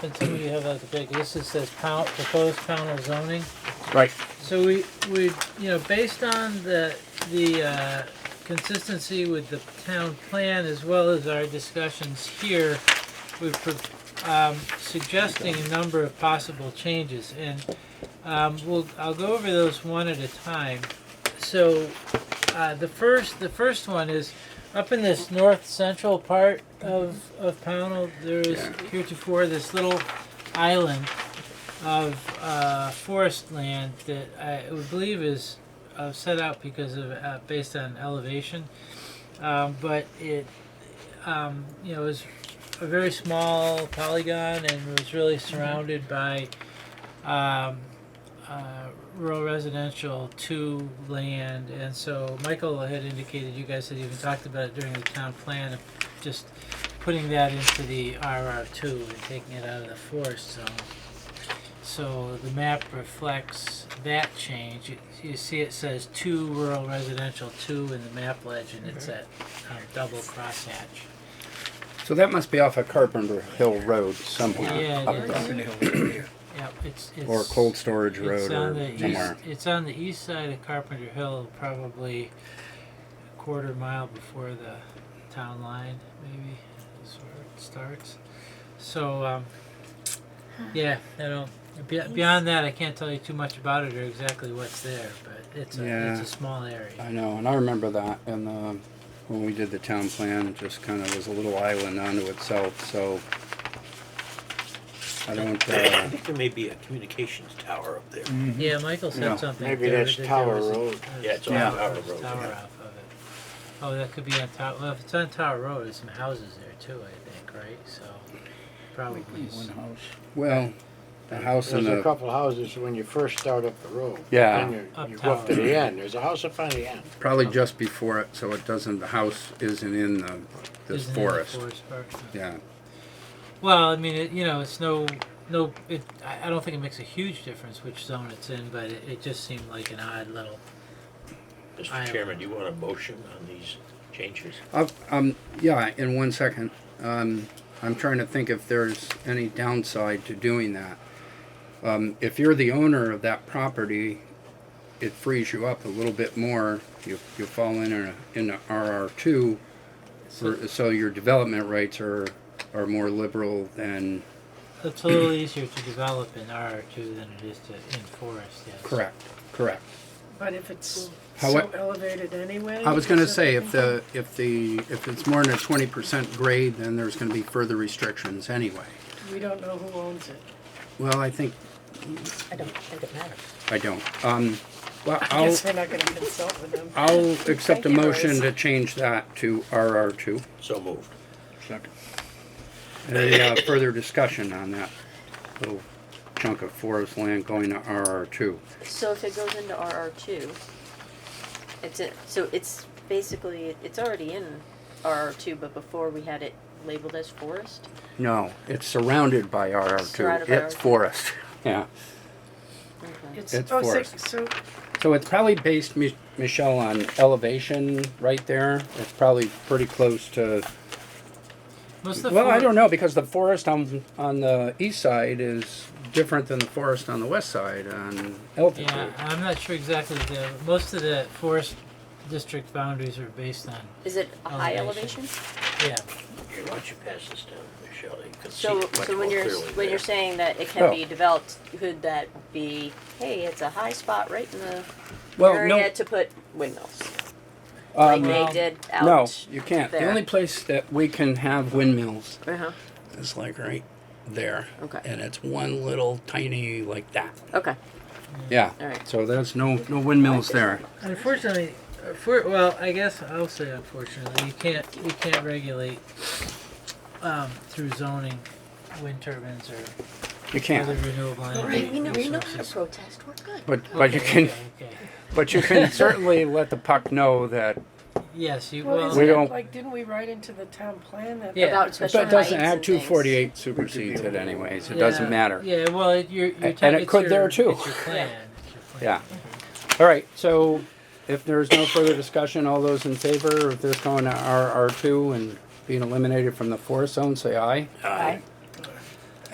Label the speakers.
Speaker 1: And so you have like a big, this is says pound, proposed panel zoning.
Speaker 2: Right.
Speaker 1: So we, we, you know, based on the, the, uh, consistency with the town plan as well as our discussions here, we're, pro- um, suggesting a number of possible changes and, um, we'll, I'll go over those one at a time. So, uh, the first, the first one is up in this north central part of, of Pownell, there is heretofore this little island of uh, forest land that I would believe is uh, set out because of uh, based on elevation, um, but it um, you know is a very small polygon and was really surrounded by um, uh, rural residential to land, and so Michael had indicated you guys had even talked about it during the town plan of just putting that into the RR two and taking it out of the forest zone. So the map reflects that change. You, you see it says two rural residential, two in the map legend, it's at um, double crosshatch.
Speaker 2: So that must be off of Carpenter Hill Road somewhere.
Speaker 1: Yeah, it
Speaker 2: up
Speaker 1: is.
Speaker 2: there.
Speaker 1: Yeah, it's, it's.
Speaker 2: Or Cold Storage
Speaker 1: it's
Speaker 2: Road
Speaker 1: on the
Speaker 2: or
Speaker 1: east-
Speaker 2: somewhere.
Speaker 1: It's on the east side of Carpenter Hill, probably a quarter mile before the town line, maybe, is where it starts. So, um, yeah, I don't, be- beyond that, I can't tell you too much about it or exactly what's there, but it's a, it's
Speaker 2: Yeah.
Speaker 1: a small area.
Speaker 2: I know, and I remember that, and, uh, when we did the town plan, it just kind of was a little island unto itself, so. I don't,
Speaker 3: I
Speaker 2: uh,
Speaker 3: think there may be a communications tower up there.
Speaker 1: Yeah, Michael
Speaker 2: Yeah.
Speaker 1: said something.
Speaker 4: Maybe
Speaker 1: there
Speaker 4: that's
Speaker 1: that there
Speaker 4: Tower
Speaker 1: was a-
Speaker 4: Road.
Speaker 1: there's
Speaker 3: Yeah, it's
Speaker 1: a
Speaker 3: on
Speaker 1: tower-
Speaker 3: Tower
Speaker 1: there's a
Speaker 3: Road,
Speaker 1: Tower
Speaker 3: yeah.
Speaker 1: off of it. Oh, that could be on Tower, well, if it's on Tower Road, there's some houses there too, I think, right? So, probably. s-
Speaker 2: well, the house in
Speaker 4: There's a
Speaker 2: the,
Speaker 4: couple houses when you first start up the road.
Speaker 2: Yeah.
Speaker 4: Then you,
Speaker 1: Up
Speaker 4: you go up to
Speaker 1: tower.
Speaker 4: the end, there's a house up on the end.
Speaker 2: probably just before it, so it doesn't, the house isn't in the, this
Speaker 1: isn't it in the
Speaker 2: forest.
Speaker 1: Forest part?
Speaker 2: Yeah,
Speaker 1: Well, I mean, it, you know, it's no, no, it, I, I don't think it makes a huge difference which zone it's in, but it, it just seemed like an odd little, I-
Speaker 3: Mr. Chairman, do you want a motion on these changes?
Speaker 2: I'll- um, yeah, in one second, um, I'm trying to think if there's any downside to doing that. Um, if you're the owner of that property, it frees you up a little bit more, you, you fall in a, in a RR two,
Speaker 1: so
Speaker 2: for- so your development rights are, are more liberal than.
Speaker 1: it's a little easier to develop in R two than it is to, in forest, yes.
Speaker 2: correct.
Speaker 5: But if it's
Speaker 2: How
Speaker 5: so
Speaker 2: it-
Speaker 5: elevated anyway.
Speaker 2: I was gonna
Speaker 5: is it-
Speaker 2: say, if the, if the, if it's more than a twenty percent grade, then there's gonna be further restrictions anyway.
Speaker 5: We don't know who owns it.
Speaker 2: Well, I think,
Speaker 6: I don't think it matters.
Speaker 2: I don't, um, well,
Speaker 5: I
Speaker 2: I'll,
Speaker 5: guess we're not gonna consult with them.
Speaker 2: I'll accept a
Speaker 5: Thank you,
Speaker 2: motion
Speaker 5: Rose.
Speaker 2: to change that to RR two.
Speaker 3: So moved.
Speaker 2: Second. Any uh, further discussion on that little chunk of forest land going to RR two?
Speaker 7: So if it goes into RR two, it's a, so it's basically, it's already in RR two, but before we had it labeled as forest?
Speaker 2: No, it's surrounded by RR two,
Speaker 7: Surrounded by
Speaker 2: it's
Speaker 7: RR2.
Speaker 2: forest, yeah. it's
Speaker 5: oh, so-
Speaker 2: forest.
Speaker 5: So,
Speaker 2: So it's probably based, Mi- Michelle, on elevation right there, it's probably pretty close to,
Speaker 1: Most of the
Speaker 2: well, I
Speaker 1: forest-
Speaker 2: don't know, because the forest on, on the east side is different than the forest on the west side on
Speaker 1: Yeah,
Speaker 2: altitude.
Speaker 1: I'm not sure exactly the, most of the forest district boundaries are based on,
Speaker 7: Is it a high
Speaker 1: Elevation.
Speaker 7: elevation?
Speaker 1: yeah.
Speaker 3: Here, why don't you pass this down, Michelle? You can see
Speaker 7: So,
Speaker 3: it much
Speaker 7: so
Speaker 3: more
Speaker 7: when you're,
Speaker 3: clearly
Speaker 7: when
Speaker 3: there.
Speaker 7: you're saying that it
Speaker 2: Oh.
Speaker 7: can be developed, could that be, hey, it's a high spot right in the
Speaker 2: Well, no,
Speaker 7: area to put windmills? Like
Speaker 2: um,
Speaker 7: they
Speaker 1: Well,
Speaker 7: did
Speaker 2: no,
Speaker 7: out,
Speaker 2: you can't. The
Speaker 7: there.
Speaker 2: only place that we can have windmills
Speaker 7: uh-huh,
Speaker 2: is like right there.
Speaker 7: Okay.
Speaker 2: And it's one little tiny like that.
Speaker 7: okay.
Speaker 2: Yeah.
Speaker 7: All right.
Speaker 2: So there's no, no windmills there.
Speaker 1: Unfortunately, uh, for, well, I guess I'll say unfortunately, you can't, you can't regulate, um, through zoning, wind turbines or
Speaker 2: You
Speaker 1: other
Speaker 2: can't.
Speaker 1: renewable energy
Speaker 7: We know, we know how to
Speaker 1: resources.
Speaker 7: protest, we're good.
Speaker 2: But, but you can,
Speaker 1: Okay, okay.
Speaker 2: but you can certainly let the puck know that
Speaker 1: Yes, you,
Speaker 5: well,
Speaker 1: well,
Speaker 5: isn't
Speaker 2: don't-
Speaker 5: it, like, didn't we write into the town plan that?
Speaker 1: Yeah.
Speaker 7: About special
Speaker 2: But it
Speaker 7: heights
Speaker 2: doesn't
Speaker 7: and
Speaker 2: act
Speaker 7: things.
Speaker 2: two forty-eight supersedes it anyways, it
Speaker 1: yeah.
Speaker 2: doesn't matter.
Speaker 1: Yeah, well, it, you're, you're.
Speaker 2: And
Speaker 1: ta-
Speaker 2: it
Speaker 1: it's
Speaker 2: could there
Speaker 1: your-
Speaker 2: too.
Speaker 1: It's your plan, it's your plan.
Speaker 2: Yeah. All right, so if there's no further discussion, all those in favor of this going to RR two and being eliminated from the forest zone, say aye.
Speaker 3: Aye.